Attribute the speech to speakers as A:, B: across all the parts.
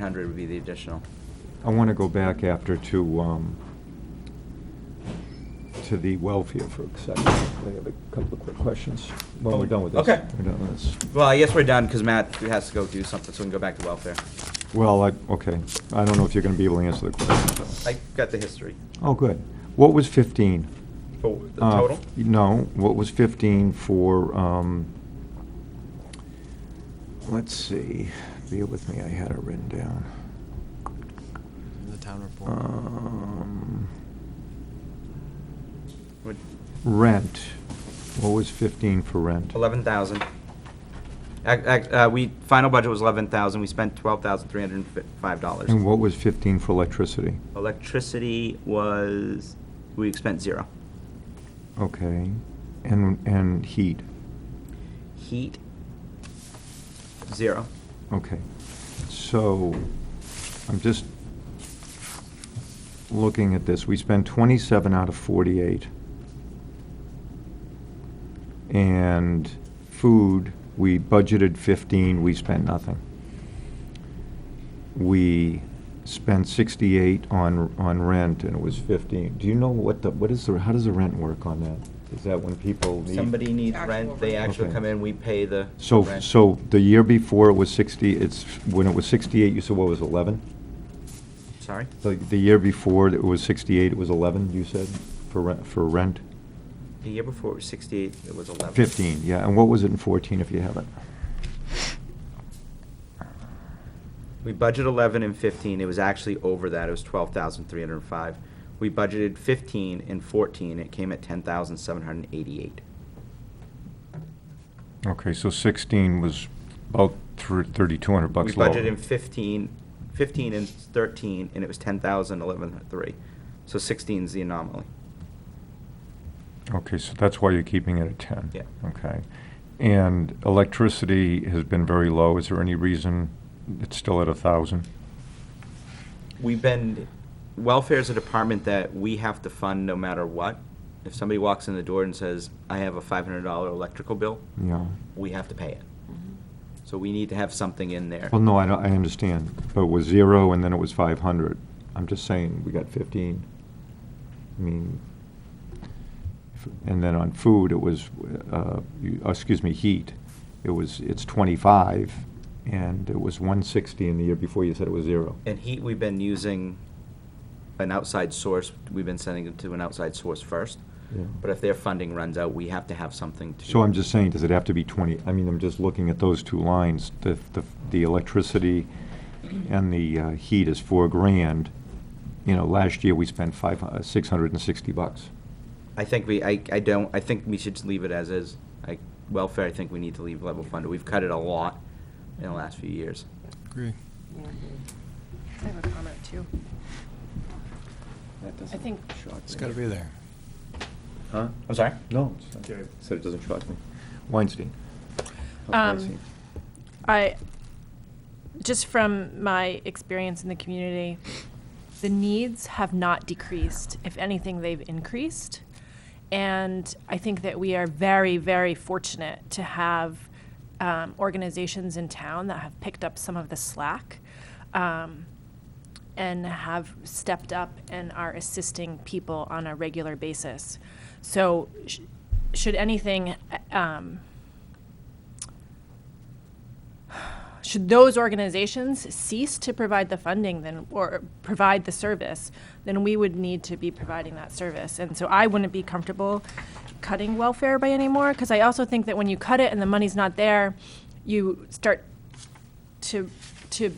A: 100 would be the additional.
B: I want to go back after to, um, to the welfare for a second. I have a couple of quick questions when we're done with this.
A: Okay.
B: We're done with this.
A: Well, I guess we're done, because Matt has to go do something, so we can go back to welfare.
B: Well, I, okay, I don't know if you're going to be able to answer the
A: I
B: question.
A: got the history.
B: Oh, good. What was 15?
A: For the
B: Uh,
A: total?
B: No, what was 15 for, um, let's see, bear with me, I had it written down.
C: The town report.
B: Um,
A: Would-
B: Rent, what was 15 for rent?
A: 11,000. Ac- ac- uh, We, final budget was 11,000, we spent
B: And
A: $12,305.
B: what was 15 for electricity?
A: Electricity was, we spent zero.
B: Okay, and, and heat,
A: Heat, zero.
B: okay. So, I'm just looking at this, we spent 27 out of 48. And food, we budgeted 15, we spent nothing. We spent 68 on, on rent, and it was 15. Do you know what the, what is the, how does the rent work on that? Is that when people need?
A: Somebody needs
D: Actual
A: rent, they
D: rent.
A: actually
B: Okay.
A: come in, we pay the
B: So,
A: rent.
B: so the year before it was 60, it's, when it was 68, you said what was 11?
A: Sorry?
B: The, the year before it was 68, it was 11, you said, for rent, for rent?
A: The year before it was 68, it was 11.
B: 15, yeah, and what was it in 14 if you have it?
A: We budgeted eleven and fifteen, it was actually over that, it was twelve thousand three hundred and five. We budgeted fifteen and fourteen, it came at ten thousand seven hundred and eighty-eight.
B: Okay, so 16 was about 3,200 bucks
A: We
B: lower.
A: budgeted in fifteen, fifteen and thirteen, and it was ten thousand eleven three. So sixteen's the anomaly.
B: Okay, so that's why you're keeping it at 10?
A: Yeah.
B: Okay. And electricity has been very low, is there any reason it's still at 1,000?
A: We've been, welfare is a department that we have to fund no matter what. If somebody walks in the door and says, I have a five hundred dollar electrical bill,
B: Yeah.
A: we have to pay it. So we need to have something in there.
B: Well, no, I don't, I understand, but it was zero and then it was five hundred. I'm just saying, we got fifteen. I mean, if- and then on food, it was, uh, you- uh, excuse me, heat, it was, it's twenty-five, and it was one sixty in the year before you said it was zero.
A: And heat, we've been using an outside source, we've been sending it to an outside source first.
B: Yeah.
A: But if their funding runs out, we have to have something to.
B: So I'm just saying, does it have to be 20? I mean, I'm just looking at those two lines, the, the- the electricity and the uh, heat is four grand. You know, last year we spent five, uh, hu- 660 bucks.
A: I think we, I, I don't, I think we should just leave it as is. I, welfare, I think we need to leave level funded. We've cut it a lot in the last few years.
C: Agree.
D: I have a comment too. I think-
C: It's gotta be there.
B: Huh?
A: I'm sorry?
B: No. Said it doesn't shock me. Weinstein.
D: Um, Weinstein. I, just from my experience in the community, the needs have not decreased. If anything, they've increased. And I think that we are very, very fortunate to have um, organizations in town that have picked up some of the slack um, and have stepped up and are assisting people on a regular basis. So, sh- should anything, uh, um, should those organizations cease to provide the funding then, or provide the service, then we would need to be providing that service. And so I wouldn't be comfortable cutting welfare by anymore, because I also think that when you cut it and the money's not there, you start to, to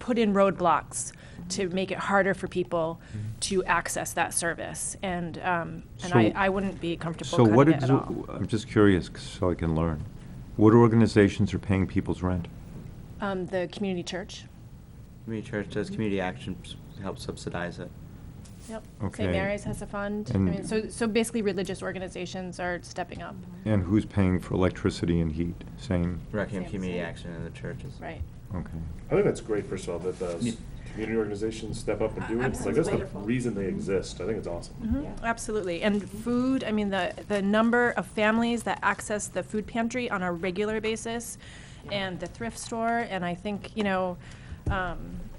D: put in roadblocks to make it harder for people to access that service. And, um, and I,
B: So-
D: I wouldn't be
B: So
D: comfortable
B: what
D: cutting it
B: did,
D: at all.
B: I'm just curious, 'cause so I can learn. What organizations are paying people's rent?
D: Um, the community church,
A: Community church does, community action helps subsidize it.
D: yep.
B: Okay.
D: St. Mary's has a fund. I
B: And-
D: mean, so, so basically religious organizations are stepping up,
B: And who's paying for electricity and heat? Same?
A: Rockingham
D: Same,
A: Community
D: same.
A: Action and the churches.
D: right?
B: Okay.
E: I think that's great, first of all, that
A: Yeah.
E: the community organizations step up and do it. Like,
D: Absolutely.
E: that's the reason they exist. I think it's awesome.
D: Mhm, Absolutely. And food, I mean, the, the number of families that access the food pantry on a regular basis and the thrift store, and I think, you know, um,